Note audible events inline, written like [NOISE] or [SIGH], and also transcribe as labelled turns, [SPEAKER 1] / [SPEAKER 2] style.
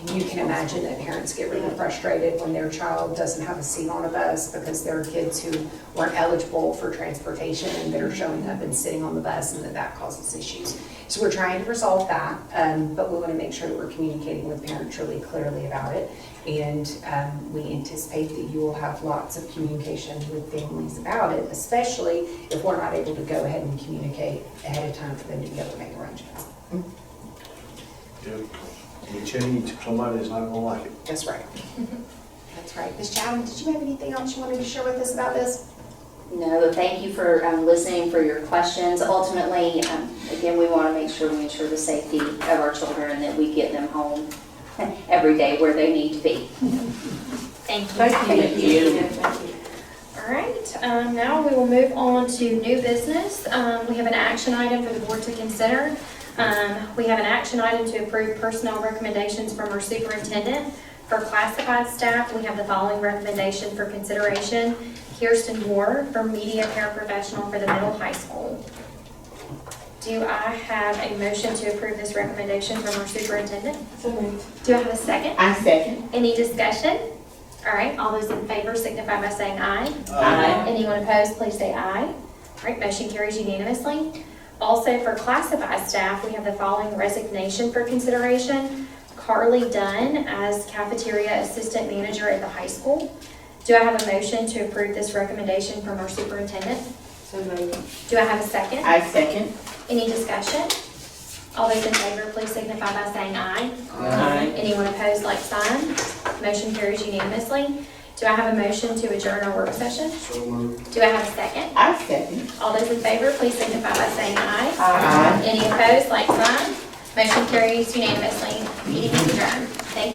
[SPEAKER 1] you can imagine that parents get really frustrated when their child doesn't have a seat on a bus because there are kids who weren't eligible for transportation and that are showing up and sitting on the bus and that that causes issues. So we're trying to resolve that, um, but we want to make sure that we're communicating with parents really clearly about it. And um, we anticipate that you will have lots of communication with families about it, especially if we're not able to go ahead and communicate ahead of time for them to be able to make arrangements.
[SPEAKER 2] Do any change, somebody's not gonna like it.
[SPEAKER 1] That's right. That's right. Ms. Chowden, did you have anything else you wanted to share with us about this?
[SPEAKER 3] No, thank you for um, listening, for your questions. Ultimately, um, again, we want to make sure we ensure the safety of our children, and that we get them home [LAUGHS] every day where they need to be.
[SPEAKER 4] Thank you.
[SPEAKER 3] Thank you.
[SPEAKER 4] All right, um, now we will move on to new business. Um, we have an action item for the board to consider. Um, we have an action item to approve personnel recommendations from our superintendent. For classified staff, we have the following recommendation for consideration. Kirsten Moore for media paraprofessional for the middle high school. Do I have a motion to approve this recommendation from our superintendent? Do I have a second?
[SPEAKER 5] I second.
[SPEAKER 4] Any discussion? All right, all those in favor signify by saying aye.
[SPEAKER 5] Aye.
[SPEAKER 4] Anyone opposed, please say aye. All right, motion carries unanimously. Also, for classified staff, we have the following resignation for consideration. Carly Dunn as cafeteria assistant manager at the high school. Do I have a motion to approve this recommendation from our superintendent?
[SPEAKER 5] So moved.
[SPEAKER 4] Do I have a second?
[SPEAKER 5] I second.
[SPEAKER 4] Any discussion? All those in favor, please signify by saying aye.
[SPEAKER 5] Aye.
[SPEAKER 4] Anyone opposed, like sign. Motion carries unanimously. Do I have a motion to adjourn our work session?
[SPEAKER 2] So moved.
[SPEAKER 4] Do I have a second?
[SPEAKER 5] I second.
[SPEAKER 4] All those in favor, please signify by saying aye.
[SPEAKER 5] Aye.
[SPEAKER 4] Any opposed, like sign. Motion carries unanimously. Meeting is adjourned.